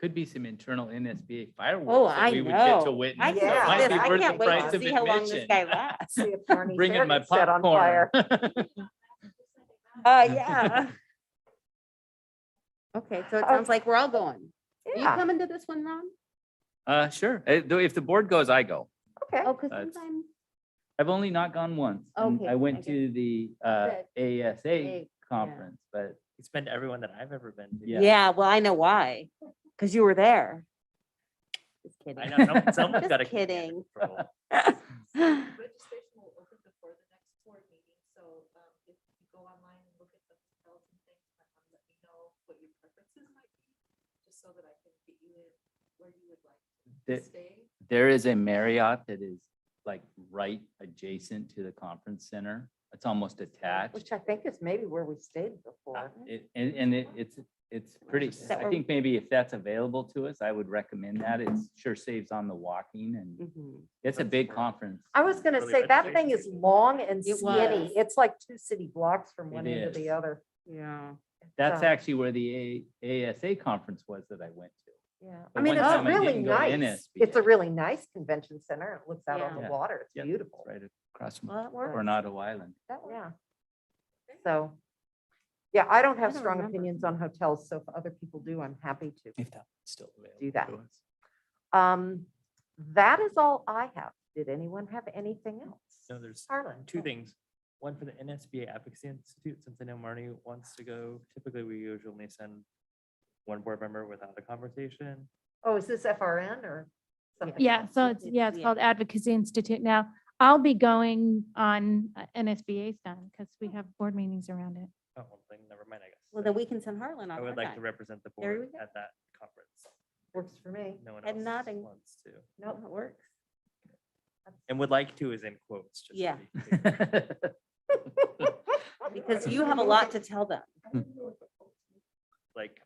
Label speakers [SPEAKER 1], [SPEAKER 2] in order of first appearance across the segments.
[SPEAKER 1] could be some internal NSBA fireworks.
[SPEAKER 2] Oh,
[SPEAKER 1] that
[SPEAKER 2] I
[SPEAKER 1] we would get To
[SPEAKER 2] know.
[SPEAKER 1] witness.
[SPEAKER 2] I
[SPEAKER 1] so it
[SPEAKER 3] Yeah.
[SPEAKER 1] might
[SPEAKER 2] can't,
[SPEAKER 1] be
[SPEAKER 2] I
[SPEAKER 1] worth
[SPEAKER 2] can't
[SPEAKER 1] the
[SPEAKER 2] wait
[SPEAKER 1] price
[SPEAKER 2] to
[SPEAKER 1] of
[SPEAKER 2] see how long this
[SPEAKER 1] admission.
[SPEAKER 2] guy lasts.
[SPEAKER 3] See if Barney
[SPEAKER 1] Bringing my
[SPEAKER 3] Fairman set on
[SPEAKER 1] popcorn.
[SPEAKER 3] fire.
[SPEAKER 2] Uh, yeah. Okay, so it sounds like we're all going. Are you
[SPEAKER 3] Oh. Yeah,
[SPEAKER 2] coming to this one, Ron?
[SPEAKER 1] Uh, sure. Eh, though If the board goes, I go.
[SPEAKER 3] okay.
[SPEAKER 2] Oh, because
[SPEAKER 1] That's-
[SPEAKER 2] sometimes,
[SPEAKER 1] I've only not gone once. and
[SPEAKER 2] Okay,
[SPEAKER 1] I
[SPEAKER 2] I
[SPEAKER 1] went
[SPEAKER 2] get
[SPEAKER 1] to the uh, ASA
[SPEAKER 2] Big,
[SPEAKER 1] conference, but
[SPEAKER 4] It's been to everyone that I've ever been to.
[SPEAKER 1] Yeah.
[SPEAKER 2] yeah, well, I know why. Because you were there. Just
[SPEAKER 4] I
[SPEAKER 2] kidding.
[SPEAKER 4] know, some- someone's
[SPEAKER 2] Just
[SPEAKER 4] got to.
[SPEAKER 2] kidding.
[SPEAKER 5] Registration will open before the next board meeting, so um, if you go online and look at the hotels and things, um, let me know what your preferences might be, just so that I can get you in where you would like to
[SPEAKER 1] the-
[SPEAKER 5] stay.
[SPEAKER 1] there is a Marriott that is like right adjacent to the conference center. It's almost attached.
[SPEAKER 3] Which I think is maybe where we stayed before.
[SPEAKER 1] Uh, It- And, and it- it's, it's pretty,
[SPEAKER 2] Is that
[SPEAKER 1] I
[SPEAKER 2] where-
[SPEAKER 1] think maybe if that's available to us, I would recommend that. It sure saves on the walking and
[SPEAKER 2] Mhm.
[SPEAKER 1] it's a
[SPEAKER 4] That's
[SPEAKER 1] big
[SPEAKER 4] where-
[SPEAKER 1] conference.
[SPEAKER 3] Mm-hmm. I was gonna
[SPEAKER 4] Really
[SPEAKER 3] say,
[SPEAKER 4] good
[SPEAKER 3] that
[SPEAKER 4] shape.
[SPEAKER 3] thing is long and
[SPEAKER 2] It
[SPEAKER 3] skinny.
[SPEAKER 2] was.
[SPEAKER 3] It's like two city blocks from one
[SPEAKER 1] It
[SPEAKER 3] end to
[SPEAKER 1] is.
[SPEAKER 3] the other.
[SPEAKER 2] Yeah.
[SPEAKER 1] That's
[SPEAKER 3] So,
[SPEAKER 1] actually where the A- ASA conference was that I went to.
[SPEAKER 3] Yeah,
[SPEAKER 1] the
[SPEAKER 3] I mean,
[SPEAKER 1] one
[SPEAKER 3] it's
[SPEAKER 1] time I
[SPEAKER 3] really
[SPEAKER 1] didn't go to
[SPEAKER 3] nice. It's
[SPEAKER 1] NSBA.
[SPEAKER 3] a really nice convention center. It looks out on
[SPEAKER 1] Yeah.
[SPEAKER 3] the water.
[SPEAKER 1] Yeah,
[SPEAKER 3] It's beautiful.
[SPEAKER 1] Right across from
[SPEAKER 2] Well, it works.
[SPEAKER 1] Coronado Island.
[SPEAKER 3] That one, Yeah. So, yeah, I don't
[SPEAKER 2] I
[SPEAKER 3] have
[SPEAKER 2] don't
[SPEAKER 3] strong
[SPEAKER 2] remember.
[SPEAKER 3] opinions on hotels, so if other people do, I'm happy to.
[SPEAKER 1] If that's still available.
[SPEAKER 3] Do that.
[SPEAKER 1] to us.
[SPEAKER 3] Um, that is all I have. Did anyone have anything else?
[SPEAKER 4] No, there's
[SPEAKER 3] Harlan,
[SPEAKER 4] two
[SPEAKER 3] go.
[SPEAKER 4] things. One for the NSBA Advocacy Institute, since I know Marnie wants to go, typically we usually send one board member without a conversation.
[SPEAKER 3] Oh, is this FRN or something?
[SPEAKER 6] Yeah,
[SPEAKER 3] else?
[SPEAKER 6] so it's,
[SPEAKER 2] it's-
[SPEAKER 6] yeah, it's
[SPEAKER 2] yeah.
[SPEAKER 6] called Advocacy Institute. Now, I'll be going on uh, NSBA's done because we have board meetings around it.
[SPEAKER 4] Oh, one thing, never mind, I guess.
[SPEAKER 2] Well, then we can send Harlan
[SPEAKER 4] I
[SPEAKER 2] on
[SPEAKER 4] would
[SPEAKER 2] our
[SPEAKER 4] like to
[SPEAKER 2] guy.
[SPEAKER 4] represent the
[SPEAKER 2] There
[SPEAKER 4] board
[SPEAKER 2] we go.
[SPEAKER 4] at that conference.
[SPEAKER 3] Works for me.
[SPEAKER 4] No one
[SPEAKER 2] Head
[SPEAKER 4] else
[SPEAKER 2] nodding.
[SPEAKER 4] wants to.
[SPEAKER 3] No, it works.
[SPEAKER 4] And would like to is in quotes. just to
[SPEAKER 2] Yeah.
[SPEAKER 4] be clear.
[SPEAKER 2] Because you have a lot to tell them.
[SPEAKER 1] Hmm.
[SPEAKER 4] Like,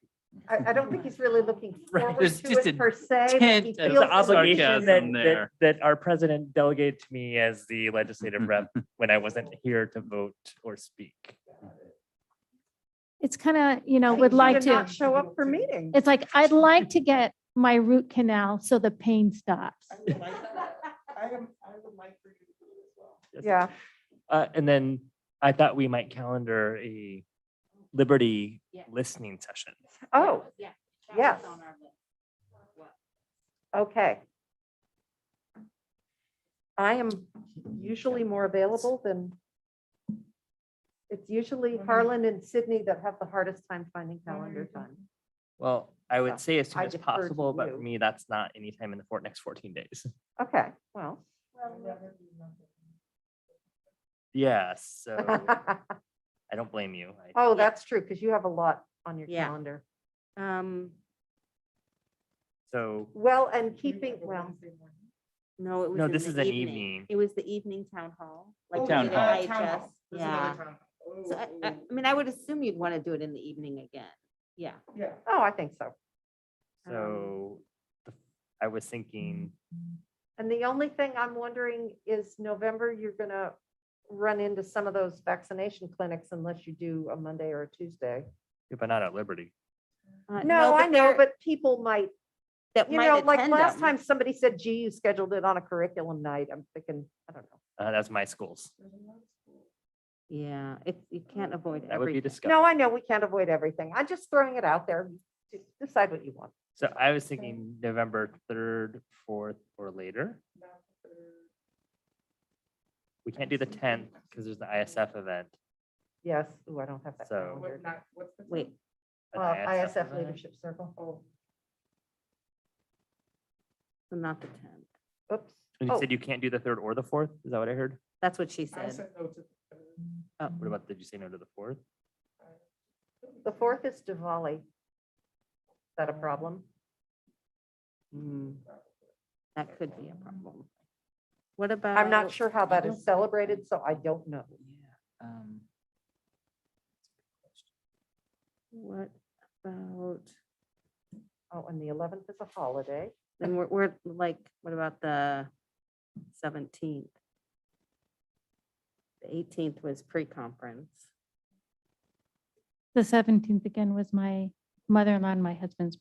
[SPEAKER 3] I, I don't think he's really looking
[SPEAKER 1] Right,
[SPEAKER 3] forward
[SPEAKER 1] there's
[SPEAKER 3] to
[SPEAKER 1] just a
[SPEAKER 3] it per se. but
[SPEAKER 1] tint
[SPEAKER 3] he
[SPEAKER 1] of
[SPEAKER 3] feels
[SPEAKER 4] It's
[SPEAKER 1] Feels
[SPEAKER 4] an
[SPEAKER 3] the
[SPEAKER 4] obligation
[SPEAKER 1] sarcasm
[SPEAKER 4] that, that,
[SPEAKER 1] there.
[SPEAKER 4] that our president delegated to me as the legislative rep when I wasn't here to vote or speak.
[SPEAKER 6] It's kind of, you know,
[SPEAKER 3] need
[SPEAKER 6] would
[SPEAKER 3] you
[SPEAKER 6] like to,
[SPEAKER 3] Not show up for meetings.
[SPEAKER 6] it's like, I'd like to get my root canal so the pain stops.
[SPEAKER 4] Yes.
[SPEAKER 3] Yeah,
[SPEAKER 4] Uh, and then I thought we might calendar a Liberty
[SPEAKER 2] Yeah.
[SPEAKER 4] listening session.
[SPEAKER 3] oh,
[SPEAKER 2] Yeah.
[SPEAKER 3] was Yes. on okay. I am usually more available than, it's usually Harlan and Sydney that have the hardest time finding calendar time.
[SPEAKER 4] Well, I
[SPEAKER 3] Yeah,
[SPEAKER 4] would say as soon
[SPEAKER 3] I
[SPEAKER 4] as
[SPEAKER 3] defer to
[SPEAKER 4] possible, but
[SPEAKER 3] you.
[SPEAKER 4] for me, that's not anytime in the fort next fourteen days.
[SPEAKER 3] Okay, well.
[SPEAKER 4] Yeah, so I don't blame you. I-
[SPEAKER 3] Oh, that's true, because you have a lot on your
[SPEAKER 2] Yeah.
[SPEAKER 3] calendar.
[SPEAKER 2] Um,
[SPEAKER 4] So,
[SPEAKER 3] Well, and keeping, well,
[SPEAKER 2] no, it was.
[SPEAKER 4] No,
[SPEAKER 2] in
[SPEAKER 4] this
[SPEAKER 2] the
[SPEAKER 4] is an evening.
[SPEAKER 2] It was the evening town hall. like
[SPEAKER 1] Oh,
[SPEAKER 2] we
[SPEAKER 1] town
[SPEAKER 2] did
[SPEAKER 1] hall.
[SPEAKER 2] at IHS. Yeah. So I, I, I mean, I would assume you'd want to do it in the evening again. Yeah.
[SPEAKER 3] oh, I think so. Um,
[SPEAKER 4] so the- I was thinking,
[SPEAKER 3] And the only thing I'm wondering is November, you're gonna run into some of those vaccination clinics unless you do a Monday or a Tuesday.
[SPEAKER 4] yeah, but not at Liberty.
[SPEAKER 2] Uh,
[SPEAKER 3] No, I know,
[SPEAKER 2] there-
[SPEAKER 3] but people might,
[SPEAKER 2] that
[SPEAKER 3] you
[SPEAKER 2] might
[SPEAKER 3] know, like
[SPEAKER 2] attend
[SPEAKER 3] last
[SPEAKER 2] them.
[SPEAKER 3] time, somebody said, gee, you scheduled it on a curriculum night. I'm thinking, I don't know.
[SPEAKER 4] Uh, that's my schools.
[SPEAKER 2] Yeah, if you
[SPEAKER 1] Mm.
[SPEAKER 2] can't avoid
[SPEAKER 4] That would be
[SPEAKER 2] everything.
[SPEAKER 4] disgusting.
[SPEAKER 3] No, I know, we can't avoid everything. I'm just throwing it out there. D- Decide what you want.
[SPEAKER 4] So I was thinking November third, fourth, or later. We can't do the tenth because there's the ISF event.
[SPEAKER 3] Yes, ooh, I don't have that.
[SPEAKER 4] So-
[SPEAKER 3] calendar.
[SPEAKER 2] Wait,
[SPEAKER 4] an
[SPEAKER 3] Uh, ISF
[SPEAKER 4] event.
[SPEAKER 3] Leadership Circle.
[SPEAKER 2] Oh. so not the tenth.
[SPEAKER 3] Oops.
[SPEAKER 4] And
[SPEAKER 3] Oh,
[SPEAKER 4] you said you can't do the third or the fourth? Is that what I heard?
[SPEAKER 2] That's what she said. Oh,
[SPEAKER 4] What about, did you say no to the fourth?
[SPEAKER 3] The fourth is Diwali. Is that a problem?
[SPEAKER 2] that could be a problem. What about?
[SPEAKER 3] I'm not sure how that is celebrated, so I don't know.
[SPEAKER 1] Um,
[SPEAKER 2] What about,
[SPEAKER 3] Oh, and the eleventh is a holiday.
[SPEAKER 2] then we're, we're like, what about the seventeenth? The eighteenth was pre-conference.
[SPEAKER 6] The seventeenth again was my mother-in-law and my husband's